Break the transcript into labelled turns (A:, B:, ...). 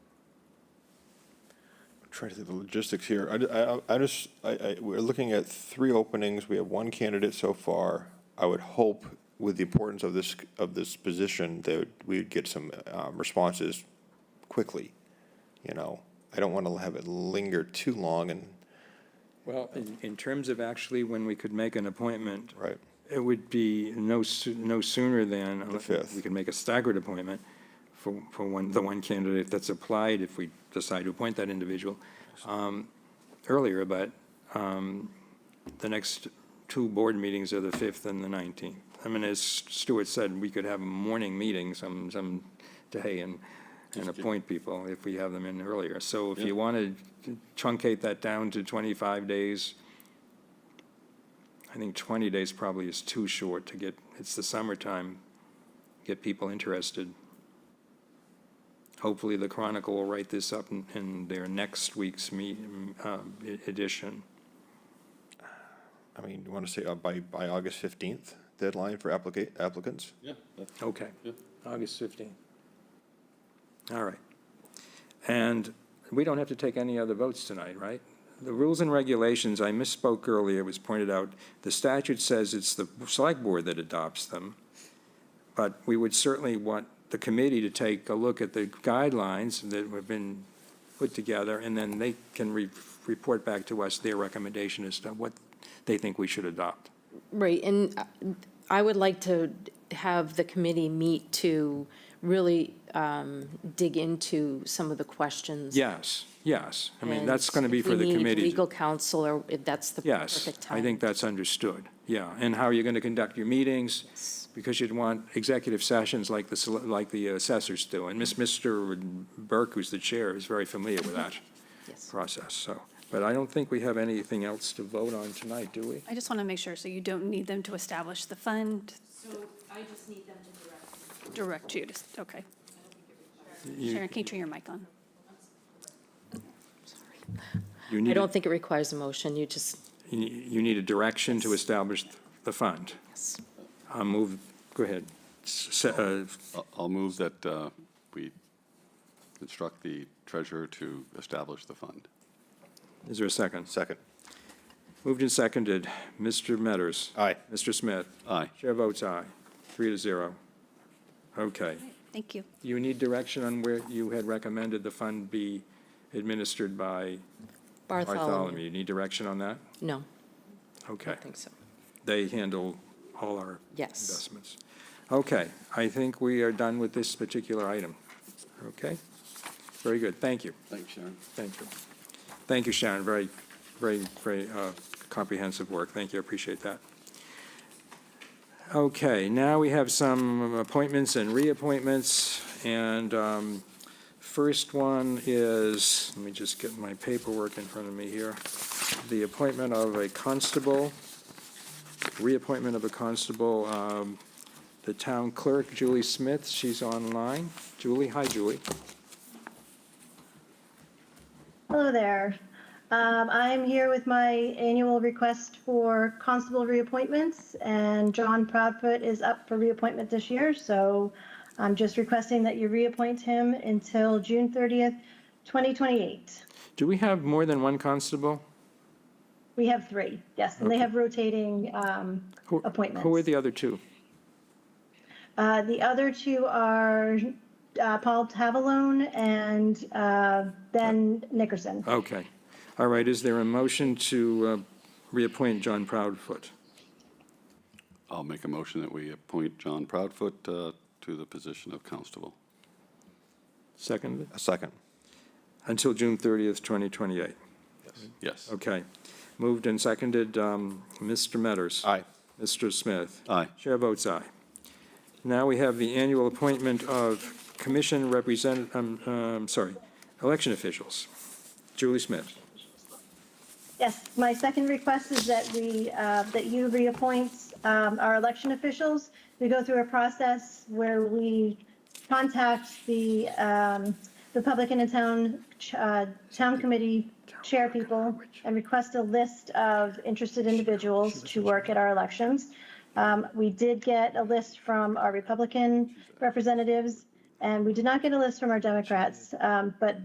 A: trying to think of the logistics here. I, I, I just, I, I, we're looking at three openings. We have one candidate so far. I would hope with the importance of this, of this position, that we would get some, um, responses quickly. You know, I don't want to have it linger too long and,
B: Well, in, in terms of actually when we could make an appointment,
A: right,
B: it would be no, soo- no sooner than.
A: The fifth.
B: We could make a staggered appointment for, for one, the one candidate that's applied, if we decide to appoint that individual, um, earlier, but, um, the next two board meetings are the fifth and the nineteenth. I mean, as Stuart said, we could have a morning meeting some, some day and, and appoint people if we have them in earlier. So if you want to truncate that down to twenty-five days, I think 20 days probably is too short to get, it's the summertime, get people interested. Hopefully, the Chronicle will write this up in, in their next week's meet, um, e- edition.
A: I mean, you want to say uh, by, by August fifteenth deadline for applicant, applicants?
C: Yeah, that's,
B: Okay.
C: Yeah.
B: August 15. All right. And we don't have to take any other votes tonight, right? The rules and regulations, I misspoke earlier, it was pointed out, the statute says it's the select board that adopts them. But we would certainly want the committee to take a look at the guidelines that have been put together, and then they can re- report back to us their recommendation as to what they think we should adopt.
D: Right, and uh, I would like to have the committee meet to really um, dig into some of the questions.
B: Yes, yes. I mean,
D: And
B: that's going to be
D: if
B: for
D: we
B: the
D: need
B: committee. to-
D: legal counsel, or if that's the
B: Yes,
D: perfect time.
B: I think that's understood, yeah. And how you're going to conduct your meetings, because you'd want executive sessions like the, sele- like the uh, assessors do. And Miss, Mr. Burke, who's the chair, is very familiar with that
D: Yes.
B: process, so. But I don't think we have anything else to vote on tonight, do we?
E: I just want to make sure, so you don't need them to establish the fund,
F: So I just need them to direct me.
E: direct you, to- okay.
B: You-
E: Sharon, can you turn your mic on?
B: you
D: I
B: need a-
D: don't think it requires a motion, you just,
B: You you need a direction to establish the fund.
D: yes.
B: I'll move, go ahead. S- uh,
C: I'll- I'll move that uh, we instruct the treasurer to establish the fund.
B: Is there a second?
A: Second.
B: Moved and seconded. Mr. Metters.
A: Aye.
B: Mr. Smith.
C: Aye.
B: Chair votes aye, three to zero. Okay.
E: Thank you.
B: You need direction on where you had recommended the fund be administered by Bartholomew.
D: Bartholomew,
B: You need direction on that?
D: no,
B: Okay.
D: I think so.
B: They handle all our
D: Yes.
B: investments. Okay, I think we are done with this particular item. Okay? Very good, thank you.
C: Thanks, Sharon.
B: Thank you. Thank you, Sharon. Very, very, very uh, comprehensive work. Thank you. I appreciate that. Okay, now we have some appointments and reappointments. And um, first one is, let me just get my paperwork in front of me here. The appointment of a constable, reappointment of a constable, um, the town clerk, Julie Smith. She's online. Julie, hi, Julie.
G: Hello there. Um, I'm here with my annual request for constable reappointments, and John Proudfoot is up for reappointment this year, so I'm just requesting that you reappoint him until June 30th, 2028.
B: Do we have more than one constable?
G: We have three, yes, and they have rotating um,
B: Who-
G: appointments.
B: Who are the other two?
G: Uh, The other two are uh, Paul Tavalone and uh, Ben Nickerson.
B: Okay. All right, is there a motion to uh, reappoint John Proudfoot?
C: I'll make a motion that we appoint John Proudfoot uh, to the position of constable.
B: Second,
A: A second.
B: until June 30th, 2028.
C: Yes.
B: Okay. Moved and seconded, um, Mr. Metters.
A: Aye.
B: Mr. Smith.
C: Aye.
B: Chair votes aye. Now we have the annual appointment of commission represent, um, um, sorry, election officials. Julie Smith.
G: Yes, my second request is that we, uh, that you reappoint um, our election officials. We go through a process where we contact the, um, the Public and the Town, uh, Town Committee chair people and request a list of interested individuals to work at our elections. Um, We did get a list from our Republican representatives, and we did not get a list from our Democrats, um, but